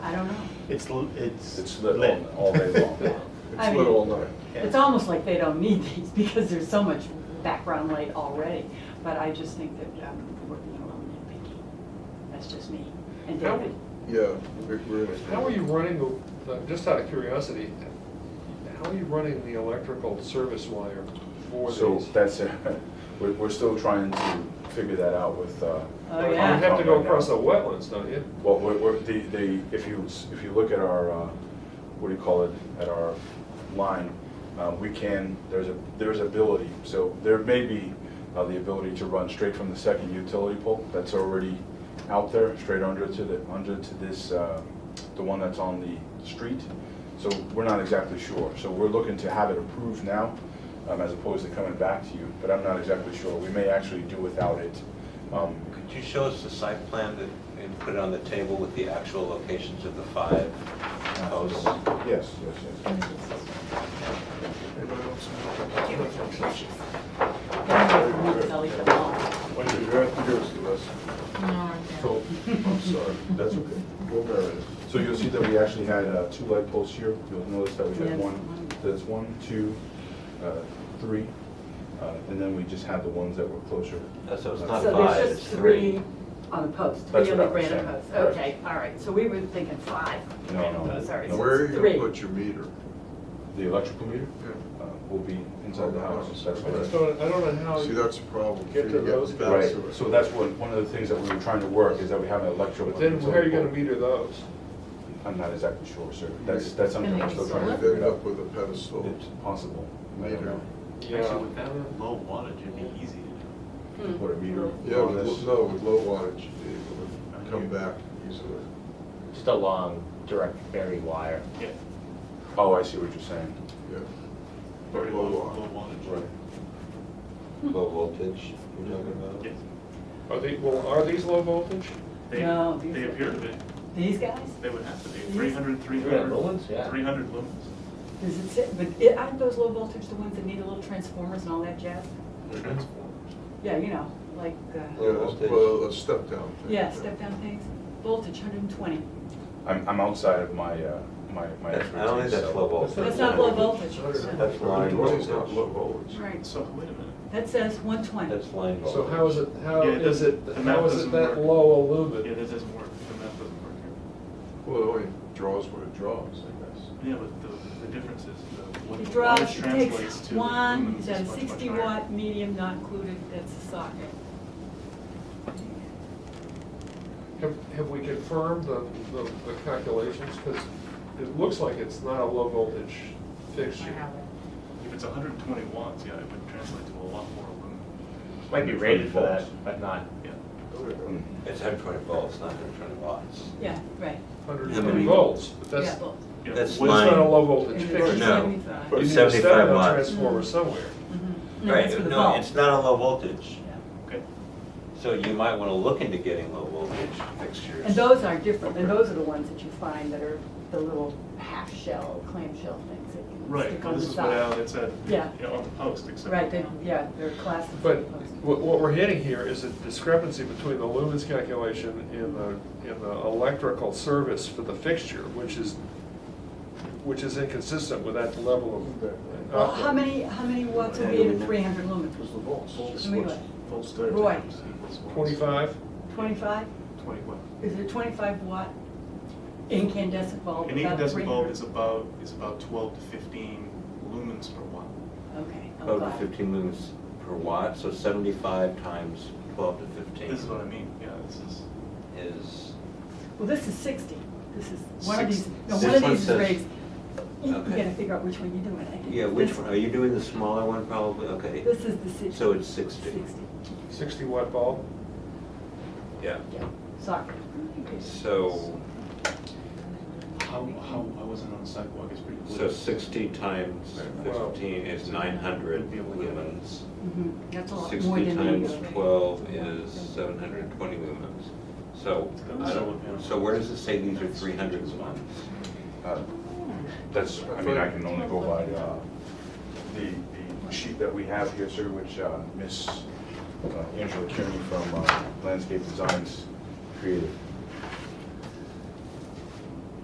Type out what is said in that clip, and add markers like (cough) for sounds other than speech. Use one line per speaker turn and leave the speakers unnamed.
It's, l- it's.
It's lit all- all day
(laughs)
long.
I
It's
mean-
lit all night.
Yeah.
It's almost like they don't need these (laughs) because there's so much background light already, but I just think that I'm working alone and thinking. That's just me and
How-
David.
Yeah, Rick, we're in it.
How are you running the, the- just out of curiosity, how are you running the electrical service wire for
So
these?
that's, it. (laughs) we're, we're still trying to figure that out with. uh,
Oh,
You
yeah.
have to go across the wetlands, don't you?
Well, we're, we're, the, the, if you, if you look at our, uh, what do you call it, at our line, uh, we can, there's a, there's ability, so there may be uh, the ability to run straight from the second utility pole that's already out there, straight under to the, under to this, uh, the one that's on the street. So we're not exactly sure, so we're looking to have it approved now, um, as opposed to coming back to you, but I'm not exactly sure, we may actually do without it. Um,
Could you show us the site plan that- and put it on the table with the actual locations of the five posts?
Yes, yes, yes.
Anybody else?
Tell each other all.
What did you have to give us to us? So, I'm sorry, that's okay. We'll bear it.
So you'll see that we actually had uh, two light posts here. You'll notice that we had
Yes.
one, that's one, two, uh, three, uh, and then we just had the ones that were closer.
That's- so it's not
So
five,
there's
it's
just
three.
three on the post,
That's
three on
what
the
I
granite
was saying,
post.
correct.
Okay, all right, so we were thinking five.
No,
granite
no,
posts, Sorry,
no.
so
Where are
it's
you
three.
gonna put your meter?
The electrical meter
Yeah.
uh, will be inside the house. That's
I just
correct.
don't, I don't know how.
See, that's a problem.
Get to those
back
Right,
to it.
so that's one, one of the things that we were trying to work is that we have an electrical.
But then where are you gonna
utility
meter those?
pole. I'm not exactly sure, sir. That's, that's something we're still trying to
You'd
figure
end
it out.
up with a pedestal.
It's possible. I don't
Meter.
know.
Yeah.
Actually, with that low wattage, it'd be easy
Hmm.
to
Mm-hmm.
Put a meter
Yeah,
on
with,
this.
lo- no, with low wattage, you'd be able to come back easily.
Just a long direct ferry wire.
do. Yeah.
Oh, I see what you're saying.
Yeah.
Very
Low
low,
wattage.
low wattage.
Right.
Low voltage you're talking about?
Yes.
Are they, well, are these low voltage?
They,
No, these
they
are-
appear to be,
These guys?
they would have to be
These-
300, 300.
lumens, yeah.
300 lumens.
Does it say, but it- aren't those low voltage the ones that need the little transformers and all that jazz?
Transformers.
Yeah, you know, like,
Yeah,
uh,
Low
that's-
voltage.
well, a step down. thing.
yeah, step down things, voltage hundred and twenty.
I'm, I'm outside of my, uh, my, my
That's-
expertise.
I don't think that's
so-
low voltage.
That's not low voltage.
That's line
Twenty's not low
voltage.
voltage.
Right,
So wait a minute.
that says one twenty.
That's line voltage.
So how is it, how
Yeah, it
is it,
doesn't- the map
how is it
doesn't
that
work.
low a
Yeah,
lumen?
that doesn't work. The math doesn't work here.
Well, it only draws what it draws, I guess.
Yeah, but the, the difference is the, what
It
the
draws,
wattage
it
translates
takes
to. lumens
one, it's
is
a
much, much
sixty
higher.
watt medium not included, that's a socket.
Have, have we confirmed the, the the calculations? Because it looks like it's not a low voltage fixture.
If it's hundred and twenty watts, yeah, it would translate to a lot more lumen.
Might be rated for that, but not.
Yeah.
Okay.
Mm-hmm.
It's 120 volts, not 120 watts.
Yeah, right.
Hundred and
Yeah, but
twenty
we-
volts, but that's,
Yeah,
it's
well,
Yeah.
That's
What-
line-
not a low
and
voltage
it's
fixture.
No.
You
Seventy-five.
need to
75
set it on
watts.
a
Mm.
transformer somewhere.
Mhm. No,
Right,
that's for the
no,
bulb.
it's not a low voltage.
Yeah.
Okay.
So you might want to look into getting low voltage fixtures.
And those are different, and those are the ones that you find that are the little half shell, clamshell things that you
Right,
stick on the
this is what
side.
Al had said, you
Yeah.
know, on the post, except.
Right, they, yeah, they're classified.
But what, what we're hitting here is a discrepancy between the lumens calculation and the, and the electrical service for the fixture, which is, which is inconsistent with that level of.
Well, how many, how many watts would be in a three hundred lumen?
Because the volts.
Volts,
Let me
what's-
look.
volts there
Roy.
times equals watts.
Twenty-five?
Twenty-five?
Twenty what?
Is it a twenty-five watt incandescent bulb?
An
about
incandescent bulb
300?
is about, is about twelve to fifteen lumens per watt.
Okay, oh, I'm
12 to
glad.
15 lumens per watt, so 75 times 12 to 15.
This is what I mean, yeah, this is,
Is,
Well, this is sixty, this is, one of these,
Six-
no,
this
one of
one
these is
says-
raised. You you
okay.
gotta figure out which one you're doing, I think.
yeah,
it's
which
this
one, are you doing the smaller one probably? Okay.
This is the sixty.
So it's 60.
Sixty,
Sixty watt bulb?
Yeah.
yeah, sorry.
So,
how, how, I wasn't on the sidewalk, it's pretty
so
clear.
60 times
Wow.
15 is 900 lumens.
Mhm, That's a lot more
60
than you
times 12 is 720 lumens. So, I don't, so where does it say these are 300 lumens?
Uh,
Oh.
That's, I mean, I can only go by uh, the the sheet that we have here, sir, which uh, Miss uh, Angela Kearney from uh, Landscape Designs created.